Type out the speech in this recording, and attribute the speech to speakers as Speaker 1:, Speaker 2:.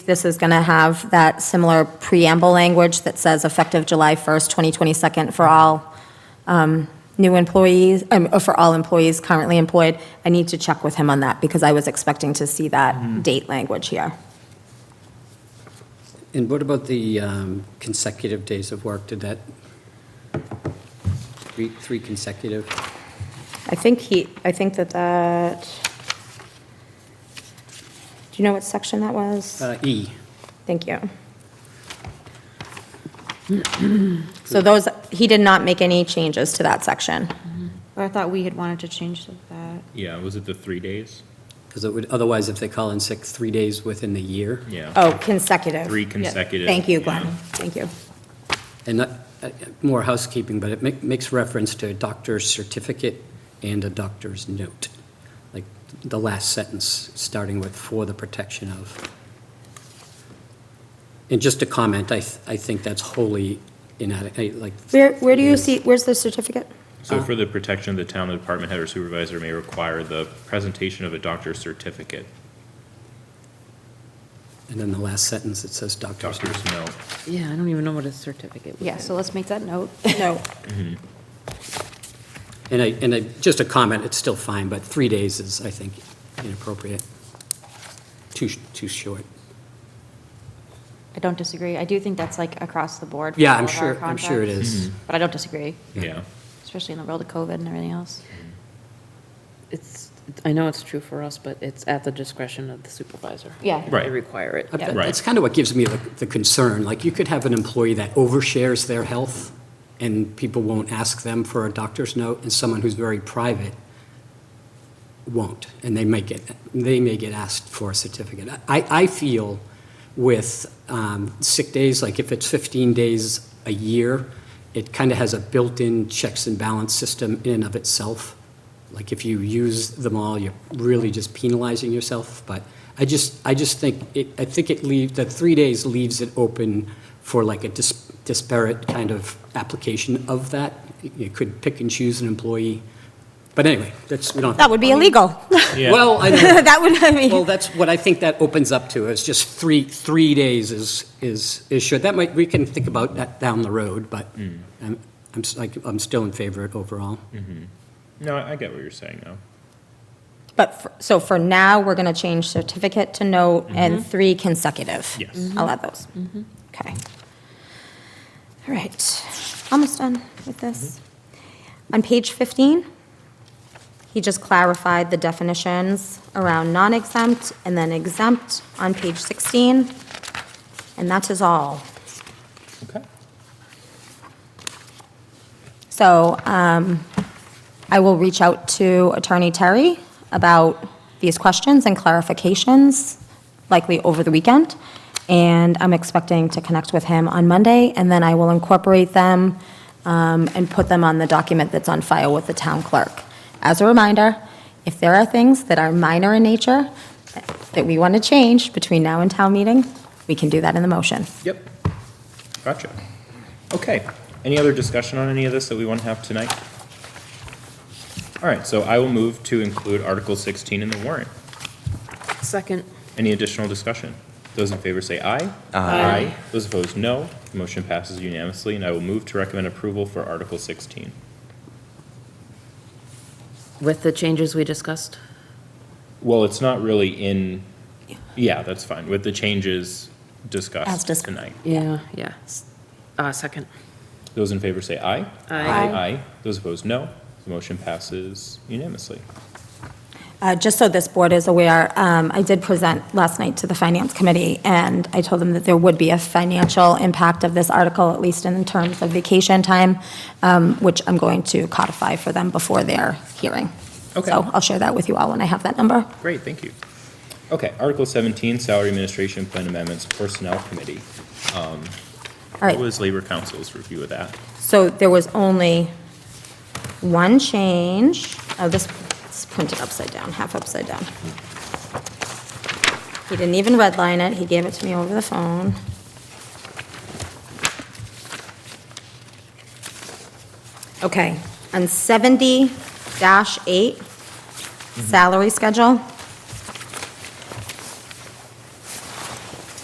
Speaker 1: This is going to have that similar preamble language that says effective July 1st, 2022 for all um, new employees, um, uh, for all employees currently employed. I need to check with him on that because I was expecting to see that date language here.
Speaker 2: And what about the um, consecutive days of work? Did that, three three consecutive?
Speaker 1: I think he, I think that that, do you know what section that was?
Speaker 2: Uh, E,
Speaker 1: Thank you. So those, he did not make any changes to that section.
Speaker 3: But I thought we had wanted to change that.
Speaker 4: Yeah, was it the three days?
Speaker 2: because it would, otherwise if they call in sick three days within the year,
Speaker 4: Yeah.
Speaker 1: Oh, consecutive.
Speaker 4: Three consecutive.
Speaker 1: Thank you,
Speaker 4: yeah.
Speaker 1: Glenn. Thank you.
Speaker 2: and not, uh, more housekeeping, but it make- makes reference to a doctor's certificate and a doctor's note, like the last sentence, starting with "for the protection of." And just a comment, I, th- I think that's wholly inadequate, like.
Speaker 1: Where, where do you
Speaker 2: Yes.
Speaker 1: see, where's the certificate?
Speaker 4: So for the protection of the town, the department head or supervisor may require the presentation of a doctor's certificate,
Speaker 2: And then the last sentence, it says doctor's note.
Speaker 4: doctor's note.
Speaker 5: Yeah, I don't even know what a certificate would
Speaker 3: Yeah, so let's make that note.
Speaker 1: No.
Speaker 2: And I, and I, just a comment, it's still fine, but three days is, I think, inappropriate. Too, sh- too short.
Speaker 3: I don't disagree. I do think that's like across the board. for
Speaker 2: Yeah,
Speaker 3: all
Speaker 2: I'm
Speaker 3: of our
Speaker 2: sure, I'm sure it
Speaker 3: contracts,
Speaker 2: is.
Speaker 3: But I don't disagree,
Speaker 4: Yeah.
Speaker 3: especially in the world of COVID and everything else.
Speaker 5: It's, I know it's true for us, but it's at the discretion of the supervisor.
Speaker 3: Yeah.
Speaker 5: If
Speaker 4: Right.
Speaker 5: They require it.
Speaker 2: I-
Speaker 3: Yeah.
Speaker 2: That's kind of what gives me the, the concern, like, you could have an employee that overshares their health, and people won't ask them for a doctor's note, and someone who's very private won't, and they may get, they may get asked for a certificate. I, I feel with um, sick days, like if it's 15 days a year, it kind of has a built-in checks and balance system in and of itself. Like if you use them all, you're really just penalizing yourself, but I just, I just think, it I think it leaves, that three days leaves it open for like a dis- disparate kind of application of that. You could pick and choose an employee, but anyway, that's, we don't have to
Speaker 1: That would be illegal.
Speaker 4: Yeah.
Speaker 2: well, I know.
Speaker 1: That would, I
Speaker 2: well,
Speaker 1: mean,
Speaker 2: that's what I think that opens up to, is just three, three days is, is, is sure. That might, we can think about that down the road, but I'm, I'm s- like, I'm still in favor of it overall.
Speaker 4: No, I I get what you're saying, though.
Speaker 1: but, for- so for now, we're going to change certificate to note and three consecutive.
Speaker 4: Mm-hmm. Yes. Mhm.
Speaker 1: I'll add those. Okay. All right, almost done with this.
Speaker 4: Mm-hmm.
Speaker 1: On page 15, he just clarified the definitions around non-exempt and then exempt on page 16, and that is all.
Speaker 4: Okay.
Speaker 1: So um, I will reach out to Attorney Terry about these questions and clarifications, likely over the weekend, and I'm expecting to connect with him on Monday, and then I will incorporate them um, and put them on the document that's on file with the town clerk. As a reminder, if there are things that are minor in nature that we want to change between now and town meeting, we can do that in the motion.
Speaker 4: Yep. Gotcha. Okay. Any other discussion on any of this that we want to have tonight? All right, so I will move to include Article 16 in the warrant.
Speaker 5: Second.
Speaker 4: Any additional discussion? Those in favor say aye. Aye. Those opposed, no. The Motion passes unanimously, and I will move to recommend approval for Article 16.
Speaker 5: With the changes we discussed?
Speaker 4: Well, it's not really in, yeah, that's fine, with the changes discussed
Speaker 1: dis-
Speaker 4: tonight.
Speaker 5: Yeah. Yeah. Uh, second.
Speaker 4: Those in favor say aye.
Speaker 5: Aye.
Speaker 4: Aye. Those opposed, no. The motion passes unanimously.
Speaker 1: Uh, Just so this board is aware, um, I did present last night to the Finance Committee, and I told them that there would be a financial impact of this article, at least in terms of vacation time, um, which I'm going to codify for them before their hearing.
Speaker 4: Okay.
Speaker 1: So I'll share that with you all when I have that number.
Speaker 4: Great, thank you. Okay, Article 17, Salary Administration Plan Amendments Personnel Committee. Um,
Speaker 1: All right.
Speaker 4: What was Labor Council's review of that?
Speaker 1: So there was only one change. Oh, this is printed upside down, half upside down. He didn't even redline it. He gave it to me over the phone. Okay, on 70-8, salary schedule.